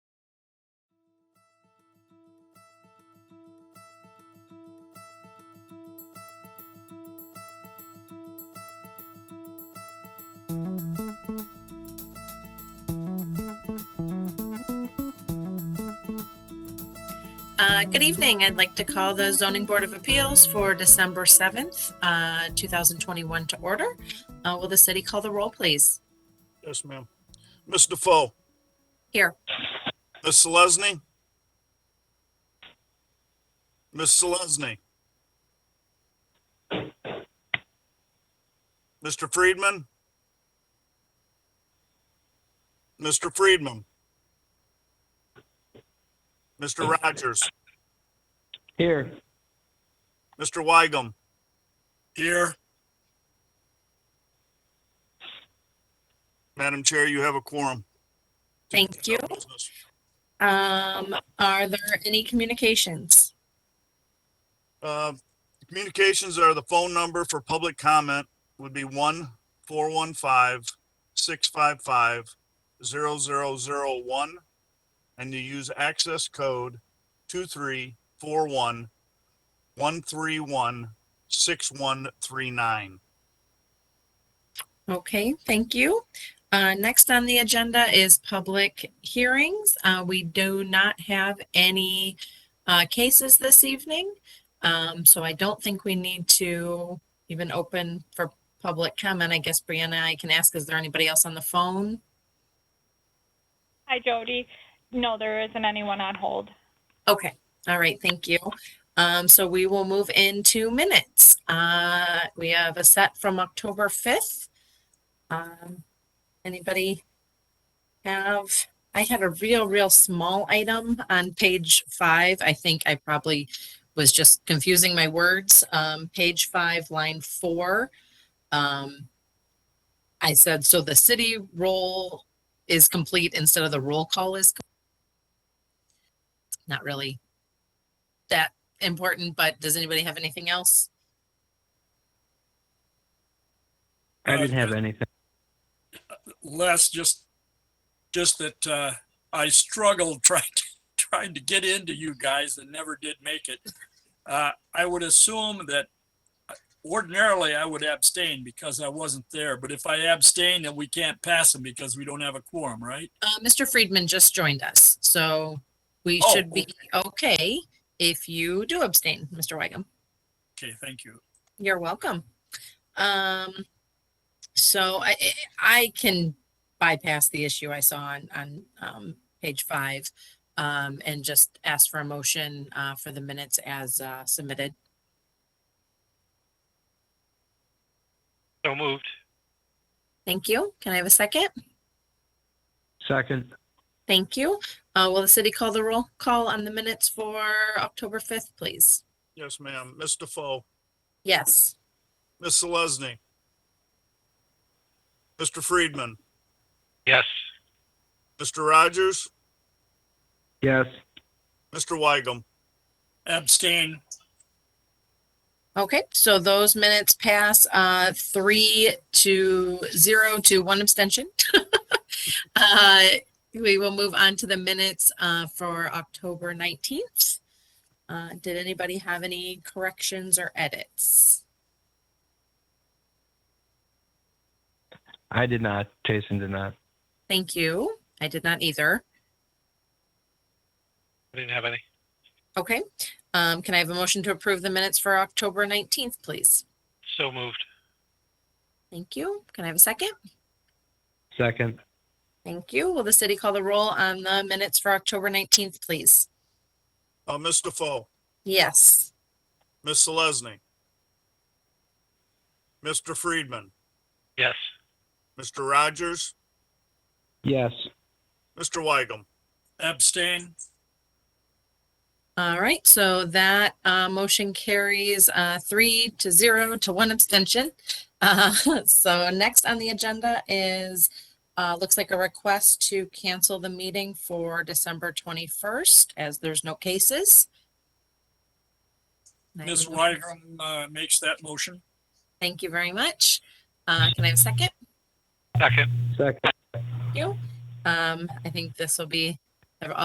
Uh, Good evening. I'd like to call the Zoning Board of Appeals for December 7th, uh, 2021 to order. Uh, Will the city call the roll, please? Yes, ma'am. Ms. Defoe? Here. Ms. Selesny? Ms. Selesny? Mr. Friedman? Mr. Friedman? Mr. Rogers? Here. Mr. Weigum? Here. Madam Chair, you have a quorum. Thank you. Um, Are there any communications? Uh, Communications are the phone number for public comment would be one four one five six five five zero zero zero one. And you use access code two three four one one three one six one three nine. Okay, thank you. Uh, Next on the agenda is public hearings. Uh, We do not have any uh, cases this evening. Um, So I don't think we need to even open for public comment. I guess Brianna, I can ask, is there anybody else on the phone? Hi, Jody. No, there isn't anyone on hold. Okay, all right, thank you. Um, so we will move into minutes. Uh, we have a set from October fifth. Um, anybody have, I had a real, real small item on page five. I think I probably was just confusing my words. Um, page five, line four. Um, I said, so the city roll is complete instead of the roll call is complete not really that important, but does anybody have anything else? I Uh, didn't have anything. Les, just, just that, uh, I struggled trying, to- trying to get into you guys and never did make it. Uh, I would assume that uh, ordinarily I would abstain because I wasn't there, but if I abstain, then we can't pass them because we don't have a quorum, right? Uh, Mr. Friedman just joined us, so we Oh, should be okay if you do abstain, Mr. Wygum. Okay, thank you. You're welcome. Um, so I, I can bypass the issue I saw on, on, um, page five. Um, and just ask for a motion, uh, for the minutes as, uh, submitted. So moved. Thank you. Can I have a second? Second, Thank you. Uh, will the city call the roll call on the minutes for October fifth, please? Yes, ma'am. Ms. Defoe, Yes. Ms. Selesny. Mr. Friedman, Yes. Mr. Rogers, yes. Mr. Weigum. Abstain, Okay, so those minutes pass, uh, three to zero to one abstention. Uh, we will move on to the minutes, uh, for October nineteenth. Uh, did anybody have any corrections or edits? I did not. Jason did not. Thank you. I did not either. I didn't have any. Okay, um, can I have a motion to approve the minutes for October nineteenth, please? So moved. Thank you. Can I have a second? Second, Thank you. Will the city call the roll on the minutes for October 19th, please? Uh, Ms. Defoe, Yes. Ms. Selesny. Mr. Friedman, Yes. Mr. Rogers, yes. Mr. Weigum. abstain, All right, so that uh, motion carries uh, three to zero to one abstention. Uh, So next on the agenda is, uh, looks like a request to cancel the meeting for December 21st as there's no cases. And I Ms. will- Wygram, uh, makes that motion. Thank you very much. Uh, Can I have a second? Second. Second, you. Um, I think this will be